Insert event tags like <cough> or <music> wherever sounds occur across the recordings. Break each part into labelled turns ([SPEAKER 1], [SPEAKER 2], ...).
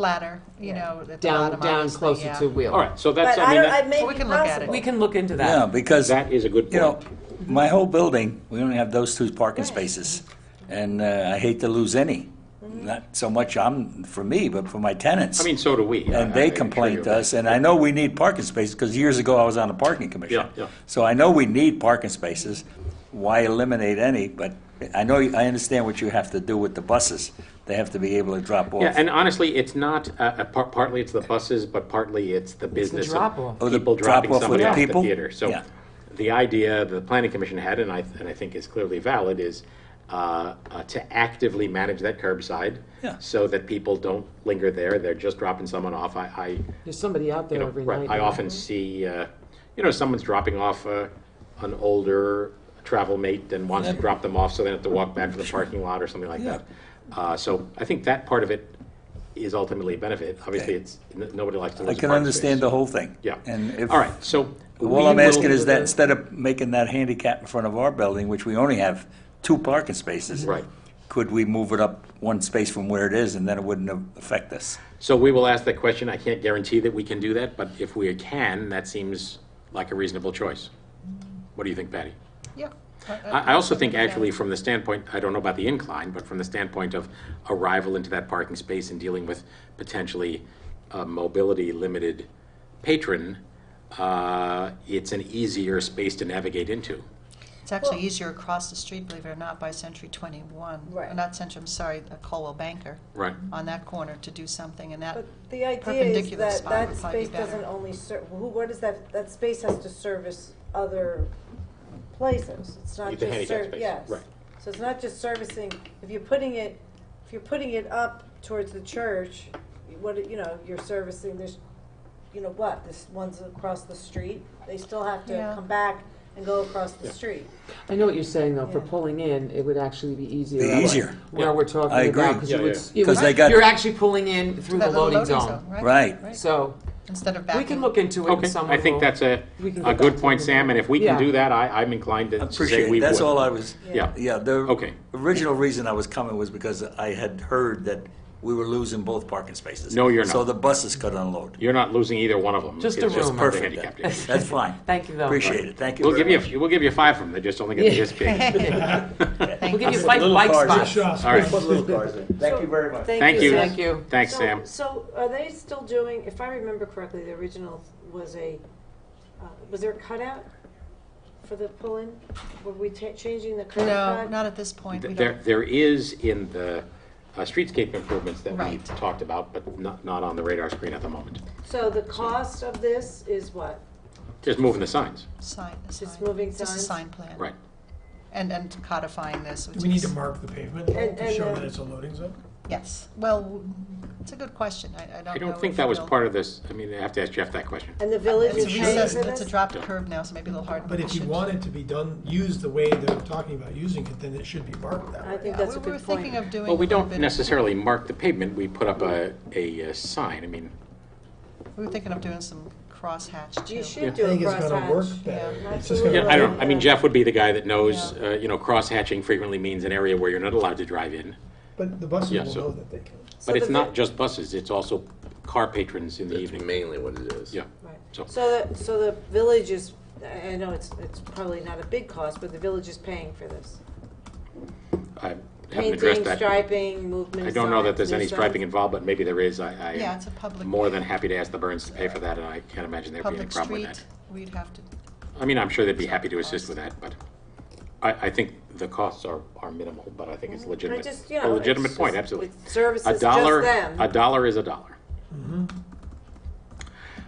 [SPEAKER 1] flatter, you know, at the
[SPEAKER 2] down,
[SPEAKER 1] bottom,
[SPEAKER 2] down
[SPEAKER 1] obviously,
[SPEAKER 2] closer
[SPEAKER 1] yeah.
[SPEAKER 2] to wheel.
[SPEAKER 3] All right, so that's,
[SPEAKER 4] But
[SPEAKER 3] I
[SPEAKER 4] I
[SPEAKER 3] mean,
[SPEAKER 4] don't, I
[SPEAKER 3] that-
[SPEAKER 4] may
[SPEAKER 1] Well, we
[SPEAKER 4] be
[SPEAKER 1] can look at it.
[SPEAKER 4] possible.
[SPEAKER 2] We can look into
[SPEAKER 5] Yeah,
[SPEAKER 2] that.
[SPEAKER 5] because,
[SPEAKER 3] that
[SPEAKER 5] you
[SPEAKER 3] is a good
[SPEAKER 5] know,
[SPEAKER 3] point.
[SPEAKER 5] my whole building, we only have those two parking spaces. And uh, I hate to lose any, not so much I'm, for me, but for my tenants.
[SPEAKER 3] I mean, so do we.
[SPEAKER 5] And
[SPEAKER 3] I- I- I'm
[SPEAKER 5] they
[SPEAKER 3] sure
[SPEAKER 5] complain
[SPEAKER 3] you're
[SPEAKER 5] to
[SPEAKER 3] right.
[SPEAKER 5] us, and I know we need parking spaces, because years ago I was on the parking commission.
[SPEAKER 3] Yeah, yeah.
[SPEAKER 5] So I know we need parking spaces. Why eliminate any? But I know, I understand what you have to do with the buses. They have to be able to drop off.
[SPEAKER 3] Yeah, and honestly, it's not, uh, uh, par- partly it's the buses, but partly it's the business
[SPEAKER 2] drop-off.
[SPEAKER 5] Oh,
[SPEAKER 3] of
[SPEAKER 5] the
[SPEAKER 3] people dropping
[SPEAKER 5] drop-off with
[SPEAKER 3] somebody
[SPEAKER 5] the
[SPEAKER 3] off at the
[SPEAKER 5] people?
[SPEAKER 3] theater. So
[SPEAKER 5] Yeah.
[SPEAKER 3] the idea the planning commission had, and I, and I think is clearly valid, is uh, uh, to actively manage that curbside
[SPEAKER 5] Yeah.
[SPEAKER 3] so that people don't linger there, they're just dropping someone off. I, I,
[SPEAKER 2] There's somebody out
[SPEAKER 3] you
[SPEAKER 2] there
[SPEAKER 3] know,
[SPEAKER 2] every
[SPEAKER 3] right,
[SPEAKER 2] night.
[SPEAKER 3] I often see, uh, you know, someone's dropping off uh, an older travel mate and wants to drop them off so they don't have to walk back to the parking lot or something like
[SPEAKER 5] Yeah.
[SPEAKER 3] that. Uh, So I think that part of it is ultimately a benefit. Obviously, it's, n- nobody likes to lose
[SPEAKER 5] I
[SPEAKER 3] a
[SPEAKER 5] can
[SPEAKER 3] parking
[SPEAKER 5] understand
[SPEAKER 3] space.
[SPEAKER 5] the whole thing.
[SPEAKER 3] Yeah.
[SPEAKER 5] And if.
[SPEAKER 3] All right, so. we
[SPEAKER 5] All I'm asking
[SPEAKER 3] will-
[SPEAKER 5] is that instead of making that handicap in front of our building, which we only have two parking spaces.
[SPEAKER 3] Right.
[SPEAKER 5] Could we move it up one space from where it is and then it wouldn't a- affect us?
[SPEAKER 3] So we will ask that question. I can't guarantee that we can do that, but if we can, that seems like a reasonable choice. What do you think, Patty?
[SPEAKER 1] Yeah. Uh, uh,
[SPEAKER 3] I I also think actually from the standpoint, I don't know about the incline, but from the standpoint of arrival into that parking space and dealing with potentially a mobility-limited patron, uh, it's an easier space to navigate into.
[SPEAKER 1] It's actually
[SPEAKER 4] Well-
[SPEAKER 1] easier across the street, believe it or not, by Century 21.
[SPEAKER 4] Right.
[SPEAKER 1] Uh, Not Century, I'm sorry, uh, Colwell Banker.
[SPEAKER 3] Right.
[SPEAKER 1] On that corner to do something, and that
[SPEAKER 4] But the idea is
[SPEAKER 1] perpendicular
[SPEAKER 4] that
[SPEAKER 1] spot
[SPEAKER 4] that
[SPEAKER 1] would probably be
[SPEAKER 4] space doesn't
[SPEAKER 1] better.
[SPEAKER 4] only serve, who, what is that, that space has to service other places. It's not
[SPEAKER 3] The
[SPEAKER 4] just
[SPEAKER 3] handicap
[SPEAKER 4] serv,
[SPEAKER 3] space,
[SPEAKER 4] yes.
[SPEAKER 3] right.
[SPEAKER 4] So it's not just servicing, if you're putting it, if you're putting it up towards the church, what, you know, you're servicing, there's, you know what, this one's across the street, they still have to
[SPEAKER 1] Yeah.
[SPEAKER 4] come back and go across the street.
[SPEAKER 2] I know what you're saying, though. For
[SPEAKER 4] Yeah.
[SPEAKER 2] pulling in, it would actually be easier.
[SPEAKER 5] Be
[SPEAKER 2] that way.
[SPEAKER 5] easier.
[SPEAKER 2] Where
[SPEAKER 3] Yeah.
[SPEAKER 2] we're talking
[SPEAKER 5] I
[SPEAKER 2] about,
[SPEAKER 5] agree.
[SPEAKER 2] because
[SPEAKER 3] Yeah,
[SPEAKER 2] you
[SPEAKER 3] yeah.
[SPEAKER 2] would, you
[SPEAKER 5] 'Cause
[SPEAKER 2] would-
[SPEAKER 5] they got-
[SPEAKER 2] you're actually pulling in through the
[SPEAKER 1] that little
[SPEAKER 2] loading,
[SPEAKER 1] loading
[SPEAKER 2] zone.
[SPEAKER 1] zone, right?
[SPEAKER 5] Right.
[SPEAKER 2] So
[SPEAKER 1] Instead of
[SPEAKER 2] we
[SPEAKER 1] backing.
[SPEAKER 2] can look into it. and
[SPEAKER 3] Okay,
[SPEAKER 2] someone
[SPEAKER 3] I think
[SPEAKER 2] will-
[SPEAKER 3] that's a,
[SPEAKER 2] we can
[SPEAKER 3] a
[SPEAKER 2] get
[SPEAKER 3] good
[SPEAKER 2] back to
[SPEAKER 3] point,
[SPEAKER 2] you.
[SPEAKER 3] Sam, and if we can
[SPEAKER 2] Yeah.
[SPEAKER 3] do that, I, I'm inclined to say
[SPEAKER 5] Appreciate
[SPEAKER 3] we
[SPEAKER 5] it.
[SPEAKER 3] would.
[SPEAKER 5] That's all I was.
[SPEAKER 3] Yeah.
[SPEAKER 5] Yeah, the.
[SPEAKER 3] Okay.
[SPEAKER 5] Original reason I was coming was because I had heard that we were losing both parking spaces.
[SPEAKER 3] No, you're not.
[SPEAKER 5] So the buses could unload.
[SPEAKER 3] You're not losing either one of them.
[SPEAKER 2] Just a
[SPEAKER 3] It's
[SPEAKER 2] rumor.
[SPEAKER 3] the
[SPEAKER 5] Perfect.
[SPEAKER 3] handicapped
[SPEAKER 5] then.
[SPEAKER 3] area.
[SPEAKER 5] That's fine.
[SPEAKER 2] Thank you, though.
[SPEAKER 5] Appreciate it. Thank you.
[SPEAKER 3] We'll give
[SPEAKER 5] very
[SPEAKER 3] you, a few- we'll give you five of them, they're just only gonna be
[SPEAKER 2] Yeah. <laughs>
[SPEAKER 3] this big.
[SPEAKER 2] We'll give you
[SPEAKER 5] much.
[SPEAKER 2] five
[SPEAKER 5] Little
[SPEAKER 2] bike
[SPEAKER 5] cars
[SPEAKER 2] spots.
[SPEAKER 5] in.
[SPEAKER 3] All right,
[SPEAKER 5] Put little cars in. Thank you very much.
[SPEAKER 3] thank you.
[SPEAKER 4] Sam.
[SPEAKER 2] Thank you.
[SPEAKER 3] Thanks,
[SPEAKER 4] So-
[SPEAKER 3] Sam.
[SPEAKER 4] So are they still doing, if I remember correctly, the original was a, uh, was there a cutout for the pull-in? Were we ta- changing the curb
[SPEAKER 1] No,
[SPEAKER 4] cut?
[SPEAKER 1] not at this point. We
[SPEAKER 3] There,
[SPEAKER 1] don't-
[SPEAKER 3] there is in the uh, streetscape improvements that we've
[SPEAKER 1] Right.
[SPEAKER 3] talked about, but not, not on the radar screen at the moment.
[SPEAKER 4] So the cost of this is what?
[SPEAKER 3] Just moving the signs,
[SPEAKER 1] Sign, the
[SPEAKER 4] Just
[SPEAKER 1] sign.
[SPEAKER 4] moving
[SPEAKER 1] This is
[SPEAKER 4] signs?
[SPEAKER 1] sign plan.
[SPEAKER 3] right.
[SPEAKER 1] And, and codifying this, which
[SPEAKER 6] Do we need to
[SPEAKER 1] is-
[SPEAKER 6] mark the pavement though,
[SPEAKER 4] And-
[SPEAKER 6] to
[SPEAKER 4] and,
[SPEAKER 6] show
[SPEAKER 4] uh,
[SPEAKER 6] that it's a loading zone?
[SPEAKER 1] Yes. Well, w- it's a good question. I, I don't know.
[SPEAKER 3] I don't think
[SPEAKER 1] if
[SPEAKER 3] that was
[SPEAKER 1] we'll-
[SPEAKER 3] part of this, I mean, I have to ask Jeff that question.
[SPEAKER 4] And the village
[SPEAKER 1] It's
[SPEAKER 4] is
[SPEAKER 1] a
[SPEAKER 4] paying
[SPEAKER 1] recess,
[SPEAKER 4] for
[SPEAKER 1] it's a
[SPEAKER 4] this?
[SPEAKER 1] dropped curve now, so maybe a little hard.
[SPEAKER 6] But if you
[SPEAKER 1] should-
[SPEAKER 6] want it to be done, used the way they're talking about using it, then it should be marked that
[SPEAKER 4] I
[SPEAKER 6] way.
[SPEAKER 1] Yeah,
[SPEAKER 4] think that's a
[SPEAKER 1] we- We were
[SPEAKER 4] good
[SPEAKER 1] thinking
[SPEAKER 4] point.
[SPEAKER 1] of doing.
[SPEAKER 3] Well, we
[SPEAKER 1] a little
[SPEAKER 3] don't
[SPEAKER 1] bit-
[SPEAKER 3] necessarily mark the pavement, we put up a, a uh, sign, I mean,
[SPEAKER 1] We were thinking of doing some crosshatch too.
[SPEAKER 4] You
[SPEAKER 6] I
[SPEAKER 4] should do a
[SPEAKER 6] think it's gonna work
[SPEAKER 4] crosshatch.
[SPEAKER 6] better.
[SPEAKER 4] Yeah,
[SPEAKER 6] It's just gonna-
[SPEAKER 3] yeah, I don't, I mean,
[SPEAKER 4] Yeah.
[SPEAKER 3] Jeff would be the guy that knows, uh, you know, cross-hatching frequently means an area where you're not allowed to drive in.
[SPEAKER 6] But the buses
[SPEAKER 3] Yeah,
[SPEAKER 6] will
[SPEAKER 3] so-
[SPEAKER 6] know that they can.
[SPEAKER 4] So
[SPEAKER 3] But it's
[SPEAKER 4] the-
[SPEAKER 3] not just buses, it's also car patrons in the evening.
[SPEAKER 7] mainly what it is.
[SPEAKER 3] Yeah,
[SPEAKER 4] Right.
[SPEAKER 3] So-
[SPEAKER 4] So the, so the village is, I I know it's, it's probably not a big cost, but the village is paying for this.
[SPEAKER 3] I haven't addressed
[SPEAKER 4] Painting,
[SPEAKER 3] that.
[SPEAKER 4] striping, movement.
[SPEAKER 3] I don't know
[SPEAKER 4] signs,
[SPEAKER 3] that there's
[SPEAKER 4] new
[SPEAKER 3] any
[SPEAKER 4] signs.
[SPEAKER 3] striping involved, but maybe there is. I, I
[SPEAKER 1] Yeah,
[SPEAKER 3] am
[SPEAKER 1] it's a public-
[SPEAKER 3] more than happy to ask the Burns to pay for that, and I can't imagine there'd be any
[SPEAKER 1] Public
[SPEAKER 3] problem with that.
[SPEAKER 1] street, we'd have to,
[SPEAKER 3] I mean, I'm sure they'd be happy to assist with that, but I, I think the costs are, are minimal, but I think it's
[SPEAKER 4] But
[SPEAKER 3] legitimate.
[SPEAKER 4] Mm-hmm. just, you
[SPEAKER 3] A
[SPEAKER 4] know,
[SPEAKER 3] legitimate
[SPEAKER 4] it's
[SPEAKER 3] point,
[SPEAKER 4] just-
[SPEAKER 3] absolutely.
[SPEAKER 4] it Services
[SPEAKER 3] A
[SPEAKER 4] just
[SPEAKER 3] dollar,
[SPEAKER 4] them. Mm-hmm.
[SPEAKER 3] a dollar is a dollar.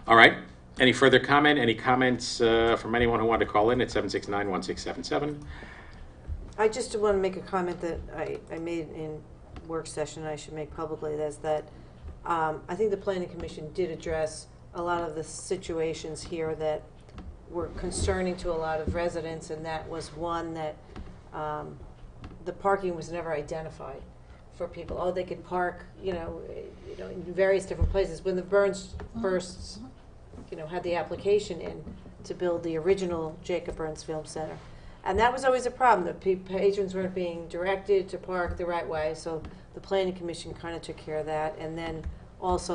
[SPEAKER 3] All right, any further comment, any comments uh, from anyone who wanted to call in at 769-1677?
[SPEAKER 4] I just want to make a comment that I, I made in work session, I should make publicly, that's that, um, I think the planning commission did address a lot of the situations here that were concerning to a lot of residents, and that was one that, um, the parking was never identified for people. Oh, they could park, you know, eh, you know, in various different places. When the Burns first you know, had the application in to build the original Jacob Burns Film Center. And that was always a problem, that pe- patrons weren't being directed to park the right way, so the planning commission kind of took care of that. And then also